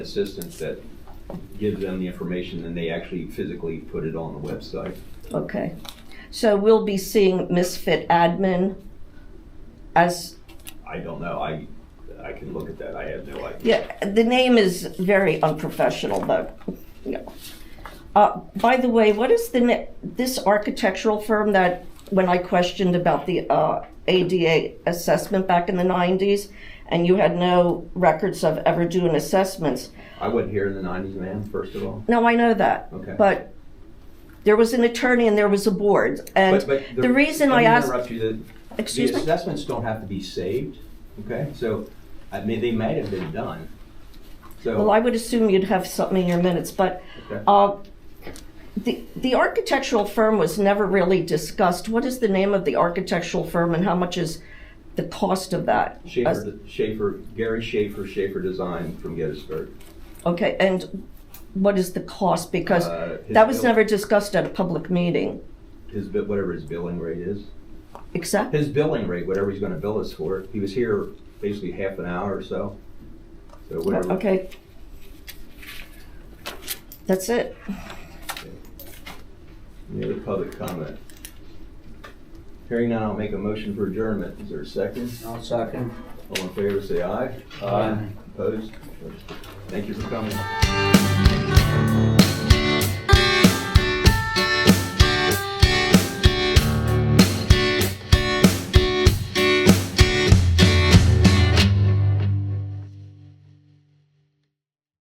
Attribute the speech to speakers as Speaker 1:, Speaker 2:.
Speaker 1: assistance that gives them the information and they actually physically put it on the website.
Speaker 2: Okay. So we'll be seeing Misfit Admin as,
Speaker 1: I don't know, I, I can look at that, I have no idea.
Speaker 2: yeah, the name is very unprofessional, but, you know. Uh, by the way, what is the, na- this architectural firm that, when I questioned about the, uh, ADA assessment back in the nineties, and you had no records of ever doing assessments,
Speaker 1: I wasn't here in the nineties, ma'am, first of all.
Speaker 2: No, I know that.
Speaker 1: Okay.
Speaker 2: But there was an attorney and there was a board. And
Speaker 1: But- but
Speaker 2: the reason I asked,
Speaker 1: Let me interrupt you, the-
Speaker 2: Excuse
Speaker 1: the
Speaker 2: me?
Speaker 1: assessments don't have to be saved, okay? So, I mean, they might have been done,
Speaker 2: well,
Speaker 1: so.
Speaker 2: I would assume you'd have something in your minutes, but
Speaker 1: Okay.
Speaker 2: uh, the the architectural firm was never really discussed. What is the name of the architectural firm and how much is the cost of that? As-
Speaker 1: Schaefer, Schaefer, Gary Schaefer, Schaefer Design from Gettysburg.
Speaker 2: Okay, and what is the cost? Because
Speaker 1: Uh, his
Speaker 2: that was
Speaker 1: bill-
Speaker 2: never discussed at a public meeting,
Speaker 1: His, bi- whatever his billing rate is.
Speaker 2: except,
Speaker 1: his billing rate, whatever he's gonna bill us for. He was here basically half an hour or so. So whatever.
Speaker 2: Oh, okay. That's it.
Speaker 1: Any other public comment? Hearing none, I'll make a motion for adjournment. Is there a second?
Speaker 3: I'll second.
Speaker 1: All in favor, say aye.
Speaker 3: Aye.
Speaker 1: Opposed? Thank you for coming.